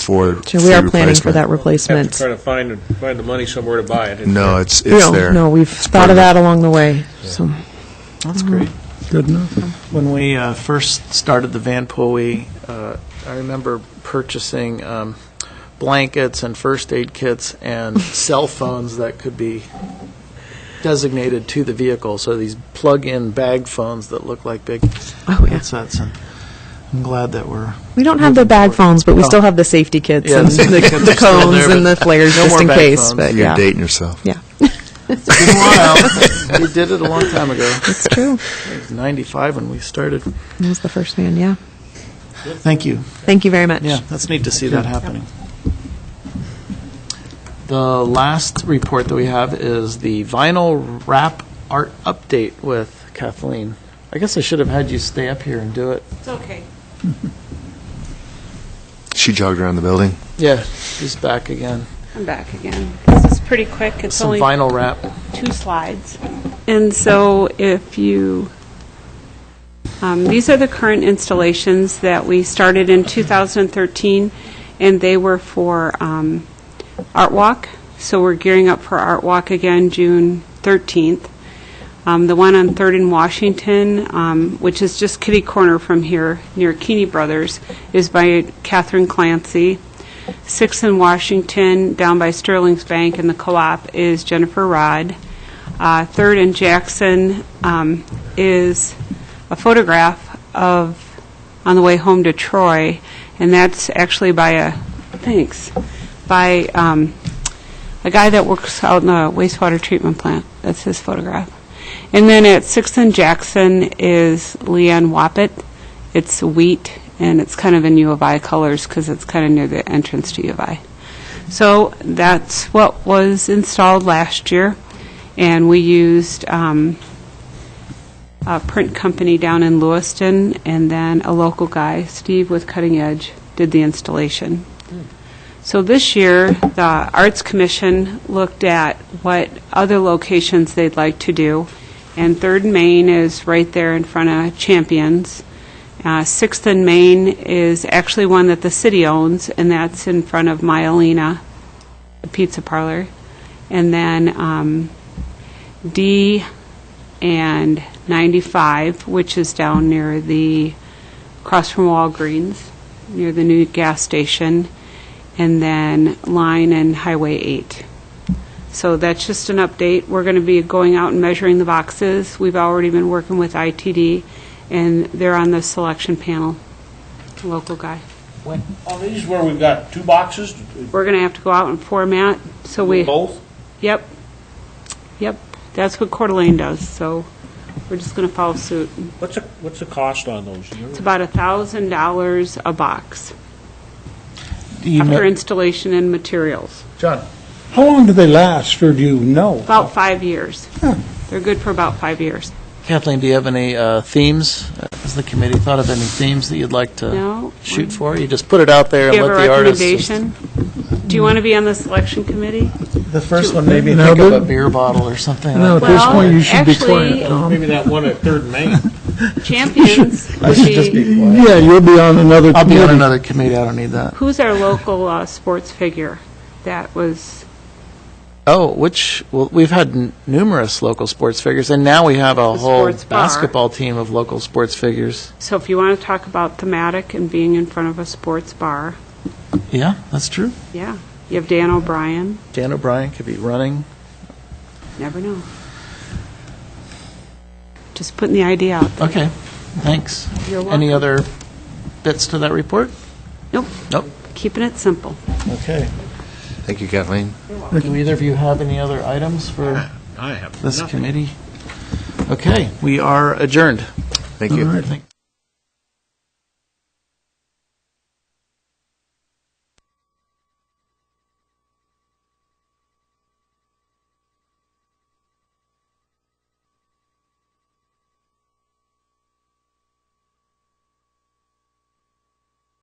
for. So we are for planning for replacement. that Have to replacement. try to find, find the money somewhere to buy it. No, it's, it's No, there. no, we've It's thought part of that along the way, so. That's great. Good enough. When we uh, first started the Van Poe, uh, I remember purchasing um, blankets and first aid kits and cell phones that could be designated to the vehicle. So these plug-in bag phones that look like big Oh, yeah. headsets. And I'm glad that we're We don't have the bag phones, but we Oh. still have the safety kits Yeah, and the safety kits the are still cones there, and the but flares no just more in bag case, phones. but You're yeah. dating yourself. Yeah, been a while. we did it a long time ago. it's true. It was 95 when we started. That was the first man, yeah. Thank you. Thank you very much. Yeah, that's neat to see that happening. The last report that we have is the vinyl wrap art update with Kathleen. I guess I should have had you stay up here and do it. It's okay. She jogged around the building. Yeah, she's back again. I'm back again. This is pretty quick. It's Some only vinyl wrap. two slides. And so if you, um, these are the current installations that we started in 2013, and they were for um, Art Walk. So we're gearing up for Art Walk again, June 13th. Um, The one on Third and Washington, um, which is just kitty corner from here, near Keeney Brothers, is by Catherine Clancy. Sixth in Washington, down by Sterling's Bank and the Co-op, is Jennifer Rod. Uh, Third and Jackson um, is a photograph of, on the way home to Troy, and that's actually by a, thanks, by um, a guy that works out in the wastewater treatment plant. That's his photograph. And then at Sixth and Jackson is Leanne Wappett. It's wheat, and it's kind of in U of I colors because it's kind of near the entrance to U of I. So that's what was installed last year, and we used um, a print company down in Lewiston, and then a local guy, Steve with Cutting Edge, did the installation. So this year, the Arts Commission looked at what other locations they'd like to do, and Third and Main is right there in front of Champions. Uh, Sixth and Main is actually one that the city owns, and that's in front of Myelina, the pizza parlor. And then um, D and 95, which is down near the, across from Walgreens, near the new gas station, and then Line and Highway 8. So that's just an update. We're going to be going out and measuring the boxes. We've already been working with ITD, and they're on the selection panel, local guy. On these where we've got two boxes, We're going to have to go out and format, so we... both? Yep. Yep. That's what Coeur d'Alene does, so we're just going to follow suit. What's the, what's the cost on those? Do you It's remember? about $1,000 a box Do you after know, installation and materials. John, how long do they last, or do you know? About five years. They're good for about five years. Kathleen, do you have any uh, themes? Has the committee thought of any themes that you'd like to No. Uh, shoot for? You just put it out there Do and you let have a the artists. just- recommendation? Do you want to be on the selection committee? The first one made me No, think of a but- beer bottle or something. No, at this Well, point, you should be actually- quiet, Tom. Maybe that one at Third and Main. Champions would be, Yeah, you'll be on another I'll be on committee. another committee. I don't need that. who's our local uh, sports figure that was, Oh, which well, we've had n- numerous local sports figures, and now we have a The whole sports bar. basketball team of local sports figures. so if you want to talk about thematic and being in front of a sports bar, Yeah, that's true. yeah. You have Dan O'Brien, Dan O'Brien could be running. never know. Just putting the idea out there. Okay, thanks. You're Any welcome. other bits to that report? Nope, Nope. keeping it simple. Okay. Thank you, Kathleen. Do either of you have any other items for I have this nothing. committee? Okay, we are adjourned. Thank you. Thank-